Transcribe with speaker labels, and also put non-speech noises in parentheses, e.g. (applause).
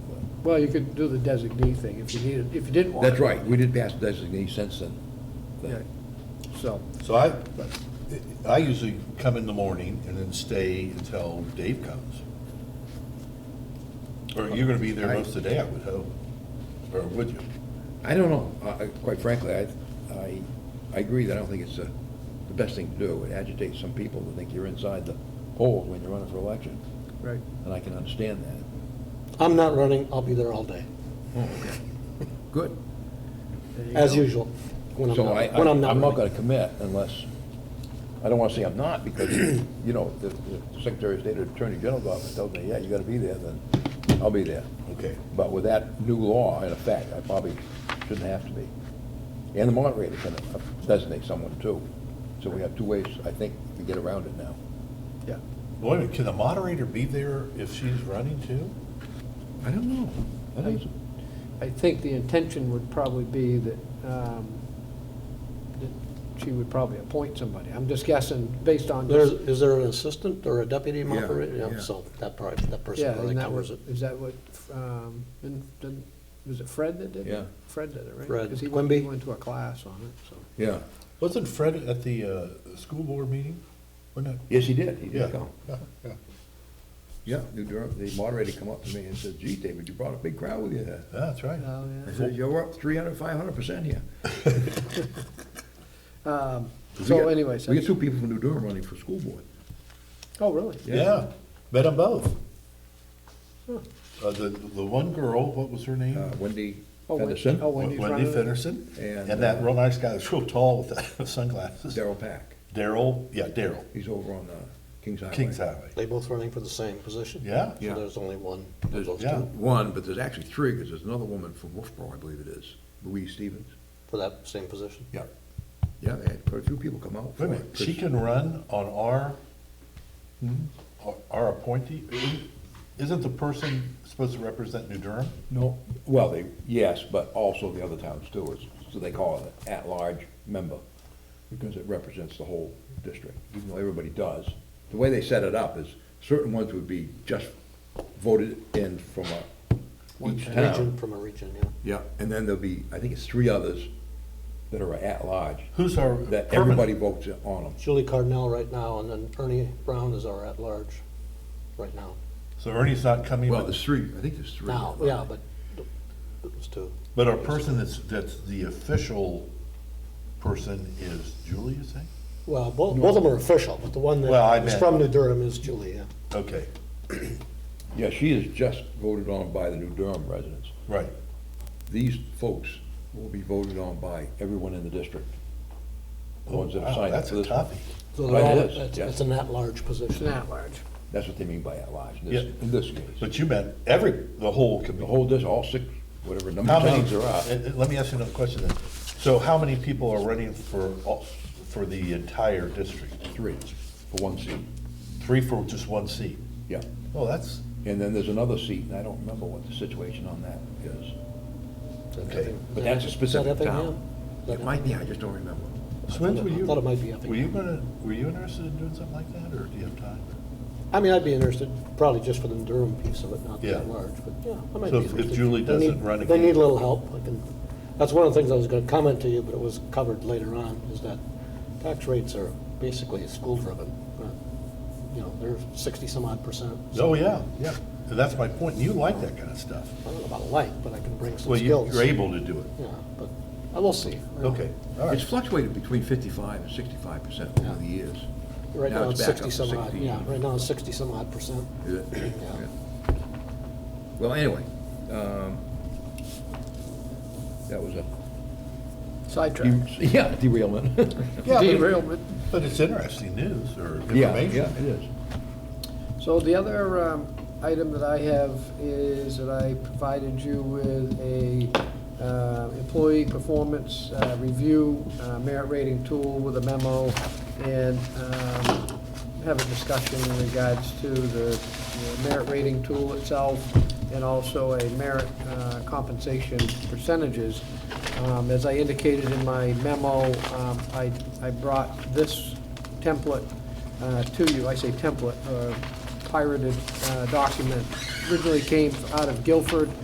Speaker 1: Well, you could do the designee thing if you needed, if you didn't want.
Speaker 2: That's
Speaker 1: it.
Speaker 2: right, we did pass designee since then.
Speaker 1: Yeah. So,
Speaker 3: So I, I usually come in the morning and then stay until Dave comes. Or you're gonna be there most of the day, I would hope, or would you?
Speaker 2: I don't know, I- I- quite frankly, I, I, I agree that I don't think it's uh, the best thing to do. It agitates some people to think you're inside the polls when you're running for election,
Speaker 1: right.
Speaker 2: and I can understand that.
Speaker 4: I'm not running, I'll be there all day,
Speaker 2: Good.
Speaker 1: there you
Speaker 4: as
Speaker 1: go.
Speaker 4: usual, when I'm
Speaker 2: So I,
Speaker 4: not,
Speaker 2: I-
Speaker 4: when I'm not
Speaker 2: I'm not
Speaker 4: running.
Speaker 2: gonna commit unless, I don't wanna say I'm not, because, you know, the the Secretary of State or Attorney General's office tells me, yeah, you gotta be there, then I'll be there.
Speaker 3: Okay.
Speaker 2: But with that new law in effect, I probably shouldn't have to be. And the moderator can designate someone too. So we have two ways, I think, to get around it now.
Speaker 1: Yeah.
Speaker 3: Wait a minute, can the moderator be there if she's running too?
Speaker 2: I don't know. I think so.
Speaker 1: I think the intention would probably be that, um, that she would probably appoint somebody. I'm just guessing based on.
Speaker 4: There's,
Speaker 1: just-
Speaker 4: is there an assistant or a deputy moderator?
Speaker 2: yeah.
Speaker 4: Yeah, so that probably, that person
Speaker 1: Yeah,
Speaker 4: probably
Speaker 1: isn't that what,
Speaker 4: covers it.
Speaker 1: is that what, um, didn't- didn't- was it Fred that did it?
Speaker 2: Yeah.
Speaker 1: Fred did it, right?
Speaker 4: Fred
Speaker 1: Because he went,
Speaker 4: Quimby.
Speaker 1: he went to a class on it, so.
Speaker 2: Yeah.
Speaker 3: Wasn't Fred at the, uh, school board meeting? Wasn't it?
Speaker 2: Yes, he did. He
Speaker 3: Yeah.
Speaker 2: did come.
Speaker 3: Yeah, yeah.
Speaker 2: Yeah, the dir- the moderator come up to me and said, gee, David, you brought a big crowd with you.
Speaker 3: Yeah, Ah, That's right.
Speaker 1: Oh,
Speaker 2: I
Speaker 1: yeah.
Speaker 2: said, you're up 300, 500% here. We
Speaker 1: So
Speaker 2: got-
Speaker 1: anyway, so,
Speaker 2: We got two people from New Durham running for school board.
Speaker 1: oh, really?
Speaker 3: Yeah, met them both. Uh, the, the one girl, what was her name?
Speaker 2: Uh, Wendy
Speaker 1: Oh, Wen-
Speaker 2: Featherston,
Speaker 1: Oh, Wendy's
Speaker 3: Wendy
Speaker 1: running it?
Speaker 3: Fenderson,
Speaker 2: And,
Speaker 3: and that
Speaker 2: uh,
Speaker 3: real nice guy that's real tall with the (laughs) sunglasses.
Speaker 2: Daryl Pack.
Speaker 3: Daryl, yeah, Daryl,
Speaker 2: He's over on uh, Kings Highway.
Speaker 3: Kings Highway.
Speaker 4: They both running for the same position?
Speaker 3: Yeah.
Speaker 2: Yeah.
Speaker 4: So there's only one of
Speaker 2: There's
Speaker 4: those
Speaker 3: yeah.
Speaker 4: two
Speaker 2: One, but there's actually three, because there's another woman from Wolfboro, I believe it is, Louise Stevens.
Speaker 4: for that same position?
Speaker 2: Yeah. Yeah, they had quite a few people come out
Speaker 3: Wait a
Speaker 2: for
Speaker 3: minute,
Speaker 2: it.
Speaker 3: she can run on our, our- our appointee? Isn't the person supposed to represent New Durham?
Speaker 2: No, well, they, yes, but also the other town stewards, so they call it an at-large member, because it represents the whole district, even though everybody does. The way they set it up is certain ones would be just voted in from a, each
Speaker 4: Region,
Speaker 2: town.
Speaker 4: from a region, yeah.
Speaker 2: Yeah, and then there'll be, I think it's three others that are at-large,
Speaker 3: Who's our
Speaker 2: that everybody
Speaker 3: permanent?
Speaker 2: votes on them.
Speaker 4: Julie Cardinal right now, and then Ernie Brown is our at-large right now.
Speaker 3: So Ernie's not coming,
Speaker 2: Well,
Speaker 3: but,
Speaker 2: there's three, I think there's three.
Speaker 4: Now, yeah, but it was two.
Speaker 3: but our person that's, that's the official person is Julie, you say?
Speaker 4: Well, both, both of them are official, but the one
Speaker 3: Well, I
Speaker 4: that is
Speaker 3: meant-
Speaker 4: from New Durham is Julie, yeah.
Speaker 3: Okay,
Speaker 2: Yeah, she is just voted on by the New Durham residents.
Speaker 3: right,
Speaker 2: These folks will be voted on by everyone in the district. The ones that
Speaker 3: Oh,
Speaker 2: have signed up for
Speaker 3: wow, that's
Speaker 2: this
Speaker 3: a
Speaker 2: one.
Speaker 3: toughie.
Speaker 4: So
Speaker 2: Right,
Speaker 4: they're
Speaker 2: it
Speaker 4: all,
Speaker 2: is,
Speaker 4: it's
Speaker 2: yeah.
Speaker 4: it's an at-large
Speaker 1: It's
Speaker 4: position.
Speaker 1: an at-large.
Speaker 2: That's what they mean by at-large, in this,
Speaker 3: Yeah.
Speaker 2: in this case.
Speaker 3: but you meant every, the whole
Speaker 2: The
Speaker 3: committee.
Speaker 2: whole, this, all six, whatever number
Speaker 3: How
Speaker 2: of
Speaker 3: many,
Speaker 2: towns there are.
Speaker 3: uh, uh, let me ask you another question then. So how many people are running for, all- for the entire district?
Speaker 2: Three, for one seat,
Speaker 3: Three for just one seat?
Speaker 2: yeah.
Speaker 3: Oh, that's,
Speaker 2: And then there's another seat, and I don't remember what the situation on that is.
Speaker 3: okay.
Speaker 2: But that's a
Speaker 4: Is that
Speaker 2: specific
Speaker 4: Effingham?
Speaker 2: town.
Speaker 4: Is that
Speaker 2: It might be, I just don't remember.
Speaker 3: So when's were you?
Speaker 4: I thought it might be up
Speaker 3: Were you gonna, were you interested in doing something like that, or do you have time?
Speaker 4: I mean, I'd be interested, probably just for the Durham piece of it, not
Speaker 3: Yeah.
Speaker 4: that large, but yeah, I might
Speaker 3: So
Speaker 4: be
Speaker 3: if- if
Speaker 4: interested.
Speaker 3: Julie
Speaker 4: They need-
Speaker 3: doesn't run
Speaker 4: They
Speaker 3: again-
Speaker 4: need a little help, I can, that's one of the things I was gonna comment to you, but it was covered later on, is that tax rates are basically school-driven. uh, You know, they're sixty-some odd percent. so
Speaker 3: Oh, yeah, yeah. And that's my point, and you like that kind of stuff.
Speaker 4: I don't know about like, but I can bring some
Speaker 3: Well, you-
Speaker 4: skills.
Speaker 3: you're able to do it.
Speaker 4: Yeah, but, I will see. Uh,
Speaker 3: Okay, all
Speaker 2: It's
Speaker 3: right.
Speaker 2: fluctuated between fifty-five and sixty-five percent over
Speaker 4: Yeah.
Speaker 2: the years.
Speaker 4: Right now, it's
Speaker 2: back up to
Speaker 4: sixty-some odd,
Speaker 2: 60.
Speaker 4: yeah, right now, it's sixty-some odd percent.
Speaker 2: Is it? Yeah. Well, anyway, um, that was a,
Speaker 1: Sidetrack.
Speaker 2: (laughs) yeah, derailment.
Speaker 3: Yeah, but-
Speaker 1: Derailment.
Speaker 3: But it's interesting news or
Speaker 2: Yeah, yeah,
Speaker 3: information.
Speaker 2: it is.
Speaker 1: So the other um, item that I have is that I provided you with a uh, employee performance uh, review uh, merit rating tool with a memo and um, have a discussion in regards to the the merit rating tool itself and also a merit uh, compensation percentages. Um, As I indicated in my memo, um, I I brought this template uh, to you, I say template, uh, pirated uh, document, originally came out of Guilford,